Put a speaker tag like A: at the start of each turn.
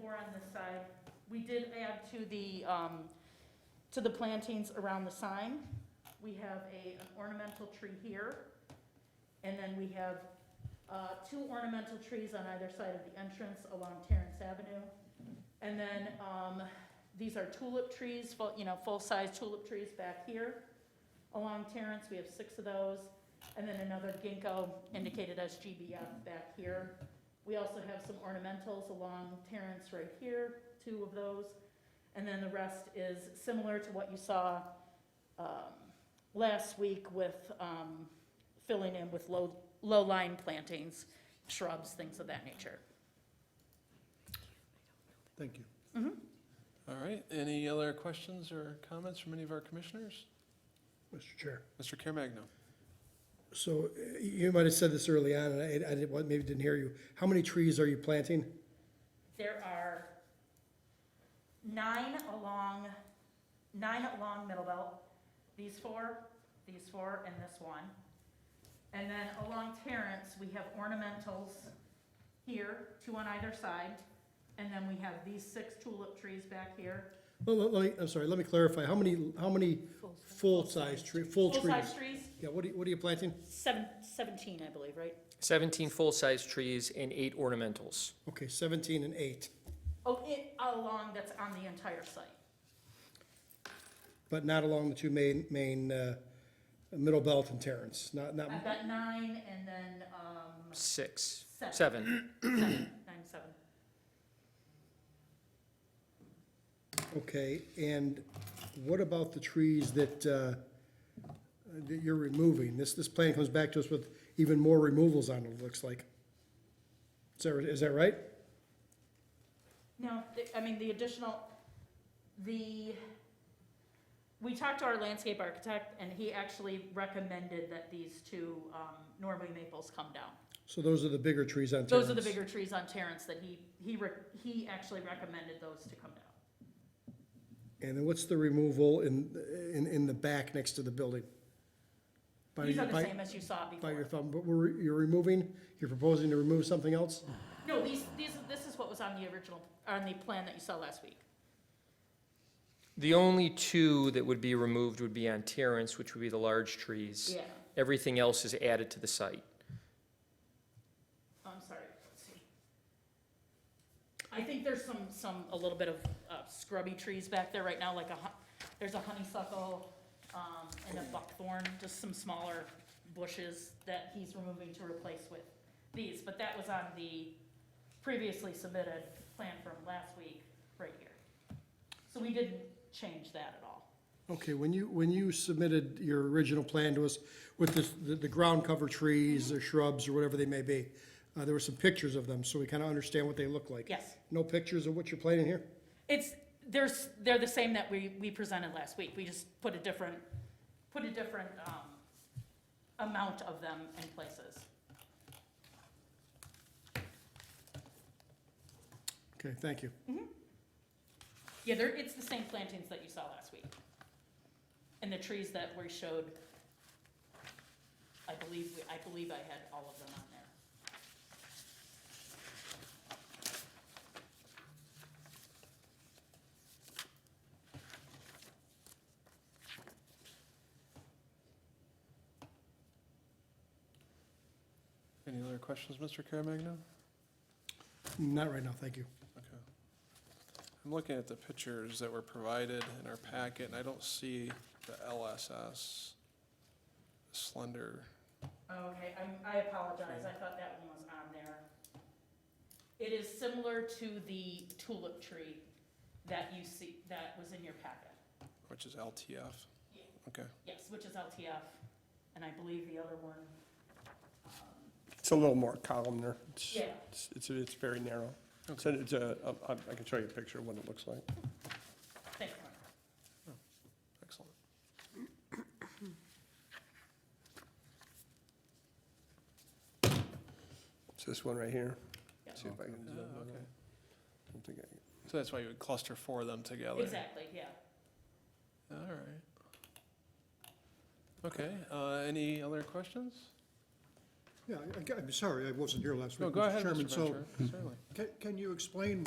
A: four on this side. We did add to the, um, to the plantings around the sign. We have a an ornamental tree here, and then we have uh, two ornamental trees on either side of the entrance along Terrence Avenue. And then um, these are tulip trees, full- you know, full-size tulip trees back here along Terrence. We have six of those. And then another ginkgo indicated as GBF back here. We also have some ornamentals along Terrence right here, two of those. And then the rest is similar to what you saw um, last week with um, filling in with low, low-line plantings, shrubs, things of that nature.
B: Thank you.
C: All right, any other questions or comments from any of our commissioners?
B: Mr. Chair.
C: Mr. Caremagna?
B: So uh, you might have said this early on, and I, I didn't, well, maybe didn't hear you. How many trees are you planting?
A: There are nine along, nine along Middle Belt, these four, these four, and this one. And then along Terrence, we have ornamentals here, two on either side, and then we have these six tulip trees back here.
B: Well, let- let me, I'm sorry, let me clarify. How many, how many full-size tree, full trees?
A: Full-size trees,
B: Yeah, what are, you- what are you planting?
A: seven, seventeen, I believe, right?
D: 17 full-size trees and eight ornamentals.
B: Okay, seventeen and eight,
A: Oh, it, along, that's on the entire site.
B: but not along the two main, main, uh, Middle Belt and Terrence, not, not,
A: I've got nine and then, um,
D: Six,
A: seven.
D: seven.
A: Seven, nine, seven.
B: okay. And what about the trees that, uh, that you're removing? This, this plan comes back to us with even more removals on it, it looks like. Is that, is that right?
A: No, the- I mean, the additional, the, we talked to our landscape architect, and he actually recommended that these two um, Norway maples come down.
B: So those are the bigger trees on Terrace?
A: Those are the bigger trees on Terrence that he, he, re- he actually recommended those to come down.
B: And then what's the removal in, in, in the back next to the building? By-
A: These are the
B: by-
A: same as you saw
B: By your
A: before.
B: thumb, but we're, you're removing, you're proposing to remove something else?
A: No, these, these, this is what was on the original, on the plan that you saw last week.
D: The only two that would be removed would be on Terrence, which would be the large trees.
A: Yeah,
D: Everything else is added to the site.
A: I'm sorry, let's see. I think there's some, some, a little bit of uh, scrubby trees back there right now, like a, hu- there's a honeysuckle, um, and a buckthorn, just some smaller bushes that he's removing to replace with these, but that was on the previously submitted plan from last week, right here. So we didn't change that at all.
B: Okay, when you, when you submitted your original plan to us with this, the, the ground cover trees or shrubs or whatever they may be, uh, there were some pictures of them, so we kind of understand what they look like.
A: Yes,
B: No pictures of what you're planting here?
A: it's, there's, they're the same that we, we presented last week, we just put a different, put a different, um, amount of them in places.
B: Okay, thank you.
A: Yeah, they're, it's the same plantings that you saw last week. And the trees that we showed, I believe, we- I believe I had all of them on there.
C: Any other questions, Mr. Caremagna?
B: Not right now, thank you.
C: Okay. I'm looking at the pictures that were provided in our packet, and I don't see the LSS slender.
A: Okay, I'm, I apologize, I thought that one was on there. It is similar to the tulip tree that you see, that was in your packet.
C: Which is LTF.
A: Yeah.
C: Okay.
A: Yes, which is LTF, and I believe the other one, um,
E: It's a little more columnar. It's-
A: yeah.
E: It's, it's, it's very narrow. So it's a, I- I can show you a picture of what it looks like.
A: Thanks, Mark.
C: Excellent.
E: It's this one right here.
A: Yeah.
E: See if I can
C: Ah,
E: zoom in on
C: okay.
E: it. I don't think I-
C: So that's why you would cluster four of them together.
A: Exactly, yeah.
C: All right. Okay, uh, any other questions?
F: Yeah, I- I- I'm sorry, I wasn't here last week.
C: No, go
F: Mr.
C: ahead, Mr.
F: Chairman. So
C: Ventura, certainly.
F: ca- can you explain